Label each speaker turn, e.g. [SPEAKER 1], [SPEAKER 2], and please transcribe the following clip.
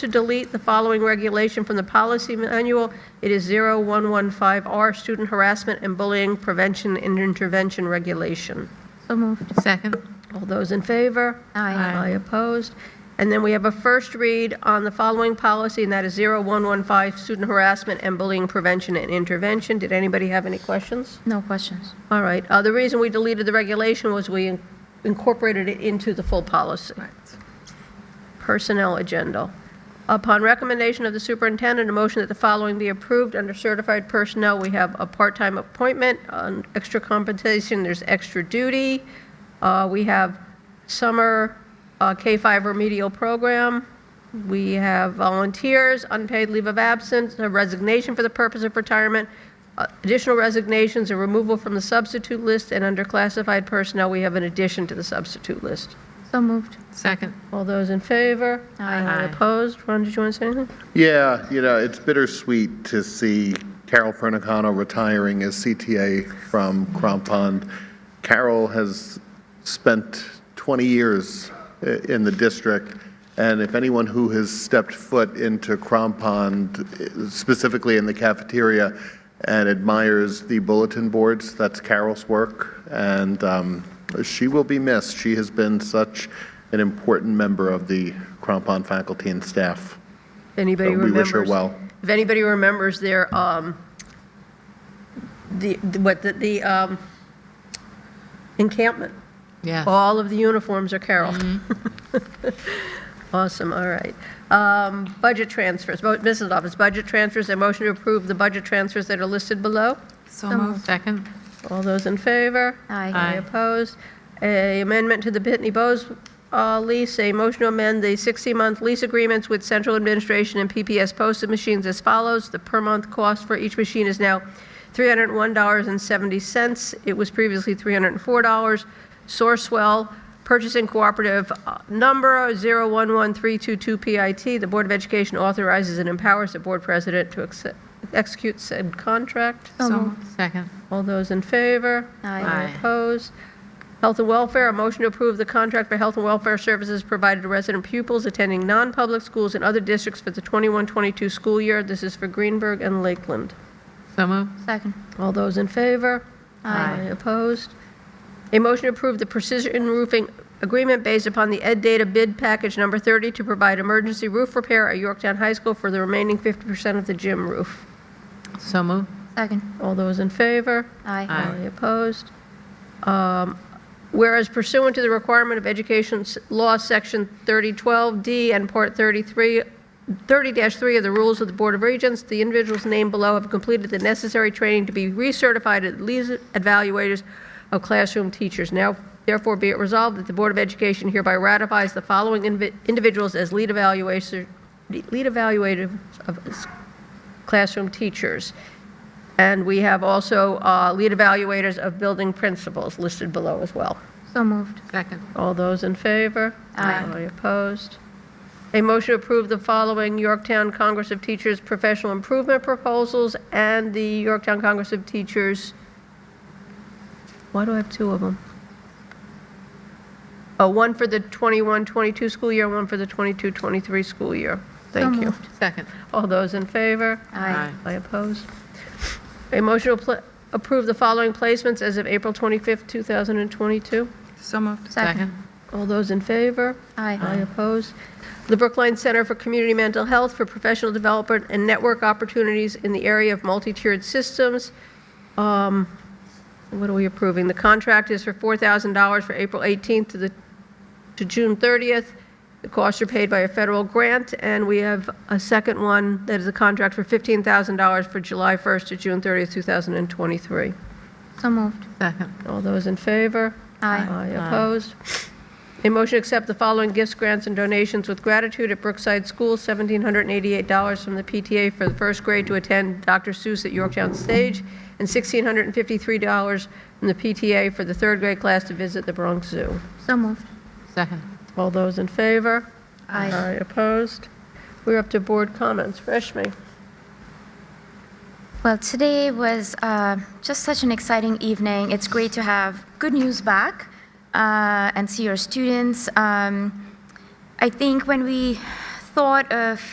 [SPEAKER 1] to delete the following regulation from the policy manual. It is 0115R, Student Harassment and Bullying Prevention and Intervention Regulation.
[SPEAKER 2] So moved.
[SPEAKER 3] Second.
[SPEAKER 1] All those in favor?
[SPEAKER 2] Aye. Aye.
[SPEAKER 1] Aye opposed. And then we have a first read on the following policy, and that is 0115, student harassment and bullying prevention and intervention. Did anybody have any questions?
[SPEAKER 2] No questions.
[SPEAKER 1] All right, uh, the reason we deleted the regulation was we in- incorporated it into the full policy. Personnel agenda. Upon recommendation of the superintendent, a motion that the following be approved. Under certified personnel, we have a part-time appointment, on extra compensation, there's extra duty. Uh, We have summer uh, K-5 remedial program. We have volunteers, unpaid leave of absence, a resignation for the purpose of retirement, uh, additional resignations, a removal from the substitute list, and under classified personnel, we have an addition to the substitute list.
[SPEAKER 2] So moved.
[SPEAKER 3] Second.
[SPEAKER 1] All those in favor?
[SPEAKER 2] Aye.
[SPEAKER 1] Anyone
[SPEAKER 3] Aye.
[SPEAKER 1] Opposed? Ron, did you want to say anything?
[SPEAKER 4] Yeah, you know, it's bittersweet to see Carol Fernicano retiring as CTA from Crampon. Carol has spent 20 years i- in the district, and if anyone who has stepped foot into Crampon, specifically in the cafeteria, and admires the bulletin boards, that's Carol's work, and um, she will be missed. She has been such an important member of the Crampon faculty and staff.
[SPEAKER 1] If anybody
[SPEAKER 4] Uh, we
[SPEAKER 1] remembers.
[SPEAKER 4] wish her well.
[SPEAKER 1] If anybody remembers their, um, the, the- what, the- the um, encampment,
[SPEAKER 3] Yes. Mm-hmm.
[SPEAKER 1] all of the uniforms are Carol. Awesome, all right. Um, Budget transfers, Bo- Mrs. Office, budget transfers, a motion to approve the budget transfers that are listed below.
[SPEAKER 3] So moved. Second.
[SPEAKER 1] All those in favor?
[SPEAKER 2] Aye.
[SPEAKER 3] Aye.
[SPEAKER 1] Any opposed? A amendment to the Pitney Bowes uh, lease, a motion to amend the 60-month lease agreements with central administration and PPS posted machines as follows. The per-month cost for each machine is now $301.70. It was previously $304. Sourcewell Purchasing Cooperative uh, number 011322PIT. The Board of Education authorizes and empowers the board president to accept- execute said contract.
[SPEAKER 2] So moved.
[SPEAKER 3] Second.
[SPEAKER 1] All those in favor?
[SPEAKER 2] Aye.
[SPEAKER 3] Aye.
[SPEAKER 1] Opposed? Health and welfare, a motion to approve the contract for health and welfare services provided to resident pupils attending non-public schools in other districts for the 21-22 school year. This is for Greenberg and Lakeland.
[SPEAKER 3] So moved.
[SPEAKER 2] Second.
[SPEAKER 1] All those in favor?
[SPEAKER 2] Aye.
[SPEAKER 1] Opposed? A motion to approve the precision roofing agreement based upon the Ed Data Bid Package Number 30 to provide emergency roof repair at Yorktown High School for the remaining 50% of the gym roof.
[SPEAKER 3] So moved.
[SPEAKER 2] Second.
[SPEAKER 1] All those in favor?
[SPEAKER 2] Aye.
[SPEAKER 3] Aye.
[SPEAKER 1] Any opposed? Um, Whereas pursuant to the requirement of Education S- Law, Section 3012D and Part 33, 30-3 of the Rules of the Board of Regents, the individuals named below have completed the necessary training to be recertified as lead evaluators of classroom teachers. Now therefore be it resolved that the Board of Education hereby ratifies the following invi- individuals as lead evaluator, lead evaluators of s- classroom teachers. And we have also uh, lead evaluators of building principals listed below as well.
[SPEAKER 2] So moved.
[SPEAKER 3] Second.
[SPEAKER 1] All those in favor?
[SPEAKER 2] Aye.
[SPEAKER 1] Any opposed? A motion to approve the following Yorktown Congress of Teachers professional improvement proposals and the Yorktown Congress of Teachers, why do I have two of them? Oh, one for the 21-22 school year, one for the 22-23 school year. Thank you.
[SPEAKER 2] moved.
[SPEAKER 3] Second.
[SPEAKER 1] All those in favor?
[SPEAKER 2] Aye.
[SPEAKER 1] I oppose. A motion to pla- approve the following placements as of April 25th, 2022.
[SPEAKER 3] So moved.
[SPEAKER 2] Second.
[SPEAKER 3] Second.
[SPEAKER 1] All those in favor? I
[SPEAKER 2] Aye.
[SPEAKER 1] oppose. The Brookline Center for Community Mental Health for Professional Development and Network Opportunities in the Area of Multi-Tiered Systems. Um, What are we approving? The contract is for $4,000 for April 18th to the, to June 30th. The costs are paid by a federal grant, and we have a second one that is a contract for $15,000 for July 1st to June 30th, 2023.
[SPEAKER 2] So moved.
[SPEAKER 3] Second.
[SPEAKER 1] All those in favor?
[SPEAKER 2] Aye.
[SPEAKER 1] opposed? A motion to accept the following gifts, grants, and donations with gratitude at Brookside School, $1,788 from the PTA for the first grade to attend Dr. Seuss at Yorktown Stage, and $1,653 from the PTA for the third grade class to visit the Bronx Zoo.
[SPEAKER 2] So moved.
[SPEAKER 3] Second.
[SPEAKER 1] All those in favor?
[SPEAKER 2] Aye.
[SPEAKER 1] opposed? We're up to board comments. Rashmi?
[SPEAKER 2] Well, today was uh, just such an exciting evening. It's great to have good news back uh, and see your students. Um, I think when we thought of